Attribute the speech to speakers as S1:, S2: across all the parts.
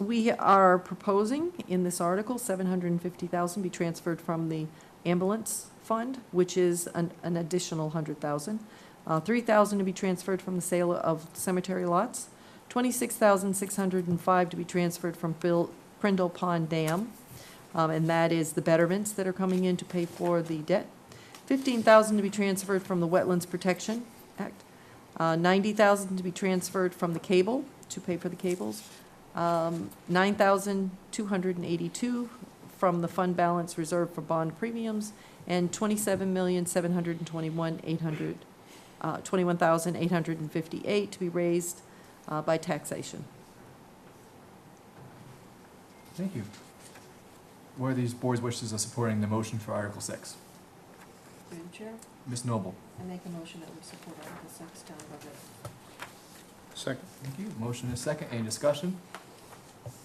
S1: We are proposing in this article, seven hundred and fifty thousand be transferred from the ambulance fund, which is an, an additional hundred thousand. Uh, three thousand to be transferred from the sale of cemetery lots, twenty-six thousand six hundred and five to be transferred from Phil, Prindle Pond Dam. Um, and that is the betterments that are coming in to pay for the debt. Fifteen thousand to be transferred from the Wetlands Protection Act. Uh, ninety thousand to be transferred from the cable, to pay for the cables. Um, nine thousand two hundred and eighty-two from the fund balance reserved for bond premiums, and twenty-seven million seven hundred and twenty-one eight hundred, uh, twenty-one thousand eight hundred and fifty-eight to be raised, uh, by taxation.
S2: Thank you. What are these board's wishes of supporting the motion for Article Six?
S3: Madam Chair,
S2: Ms. Noble?
S3: I make a motion that we support Article Six, Town Budget.
S4: Second.
S2: Thank you. Motion is second. Any discussion?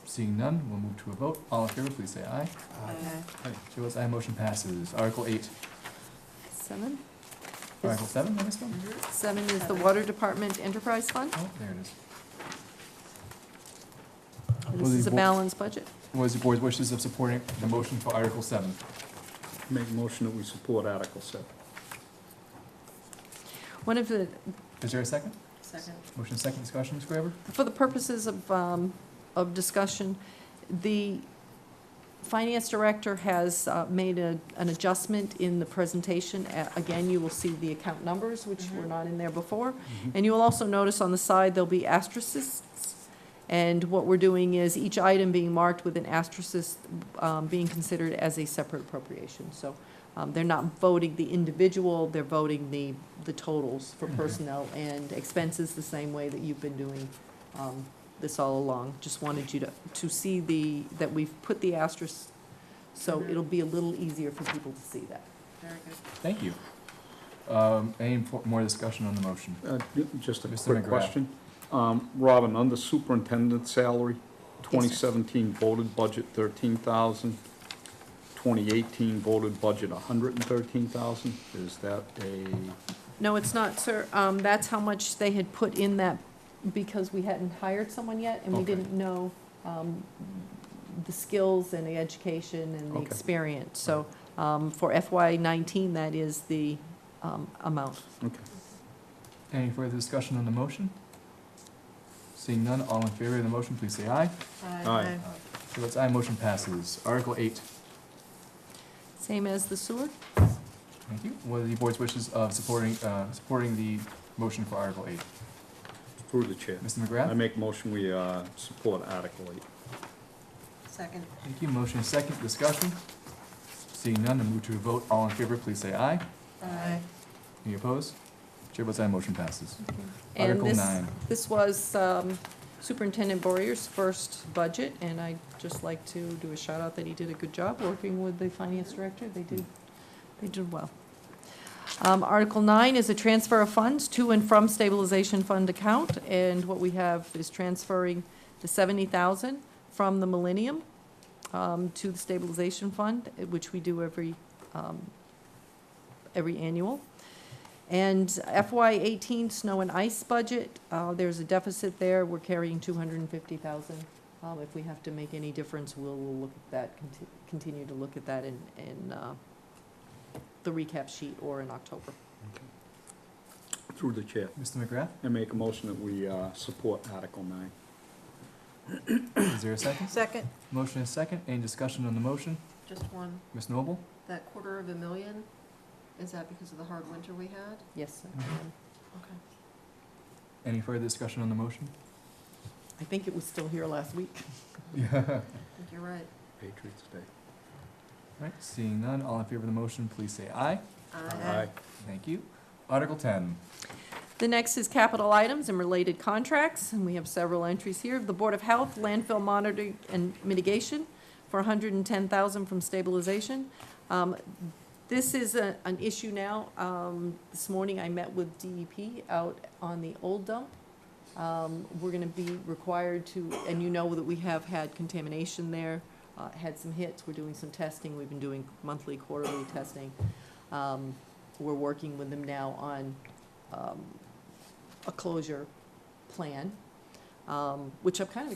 S2: Seeing none, we'll move to a vote. All in favor, please say aye.
S3: uh,
S2: Chair votes aye, motion passes. Article eight,
S1: Seven?
S2: or Article seven, I missed one?
S1: Seven is the Water Department Enterprise Fund,
S2: Oh, there it is.
S1: and
S2: Will
S1: this
S2: the
S1: is a
S2: bo-
S1: balanced budget.
S2: What is the board's wishes of supporting the motion for Article seven?
S4: Make a motion that we support Article seven.
S1: One of the,
S2: Is there a second?
S3: Second.
S2: Motion is second. Discussion, Ms. Graber?
S1: for the purposes of, um, of discussion, the finance director has, uh, made a, an adjustment in the presentation. A- Again, you will see the account numbers, which were
S3: Mhm.
S1: not in there before. And you will also notice on the side, there'll be asterisks. And what we're doing is each item being marked with an asterisk, um, being considered as a separate appropriation. So, um, they're not voting the individual, they're voting the, the totals for
S2: Mhm.
S1: personnel and expenses the same way that you've been doing, um, this all along. Just wanted you to, to see the, that we've put the asterisk, so
S3: Mhm.
S1: it'll be a little easier for people to see that.
S3: Very good.
S2: Thank you. Um, any fo- more discussion on the motion?
S4: Uh, ju- Just a
S2: Mr.
S4: quick
S2: McGrath.
S4: question. Um, Robin, under superintendent's salary, 2017 voted budget 13,000, 2018 voted budget 113,000. Is that a,
S1: No, it's not, sir. Um, that's how much they had put in that, because we hadn't hired someone yet, and we
S2: Okay.
S1: didn't know, um, the skills and the education and the
S2: Okay.
S1: experience. So, um, for FY nineteen, that is the, um, amount.
S4: okay.
S2: Any further discussion on the motion? Seeing none, all in favor of the motion, please say aye.
S4: Aye.
S2: Chair votes aye, motion passes. Article eight,
S1: Same as the sewer?
S2: thank you. What are the board's wishes of supporting, uh, supporting the motion for Article eight?
S4: Through the chair.
S2: Mr.
S4: I
S2: McGrath?
S4: make motion we uh, support Article eight.
S3: Second.
S2: Thank you. Motion is second, discussion. Seeing none, I move to a vote. All in favor, please say aye.
S3: Aye.
S2: Any opposed? Chair votes aye, motion passes.
S1: And
S2: Article
S1: this,
S2: nine.
S1: this was um, Superintendent Boyer's first budget, and I'd just like to do a shout out that he did a good job working with the finance director. They did, they did well. Um, Article nine is a transfer of funds to and from stabilization fund account, and what we have is transferring the seventy thousand from the Millennium um, to the stabilization fund, eh, which we do every, um, every annual. And FY eighteen snow and ice budget, uh, there's a deficit there, we're carrying two hundred and fifty thousand. Um, if we have to make any difference, we'll, we'll look at that, conti- continue to look at that in, in, uh, the recap sheet or in October.
S4: Through the chair.
S2: Mr. McGrath,
S4: I make a motion that we uh, support Article nine.
S2: is there a second?
S3: Second.
S2: Motion is second. Any discussion on the motion?
S3: Just one,
S2: Ms. Noble?
S3: that quarter of a million, is that because of the hard winter we had?
S1: Yes, sir.
S3: Okay.
S2: Any further discussion on the motion?
S1: I think it was still here last week.
S2: Yeah.
S3: I think you're right.
S4: Patriots Day.
S2: Right, seeing none, all in favor of the motion, please say aye.
S3: Aye.
S2: Thank you. Article ten,
S1: The next is capital items and related contracts, and we have several entries here. The Board of Health, landfill monitoring and mitigation for hundred and ten thousand from stabilization. Um, This is a, an issue now. Um, this morning I met with DEP out on the old dump. Um, we're gonna be required to, and you know that we have had contamination there, uh, had some hits. We're doing some testing. We've been doing monthly, quarterly testing. Um, we're working with them now on, um, a closure plan, um, which I'm kind of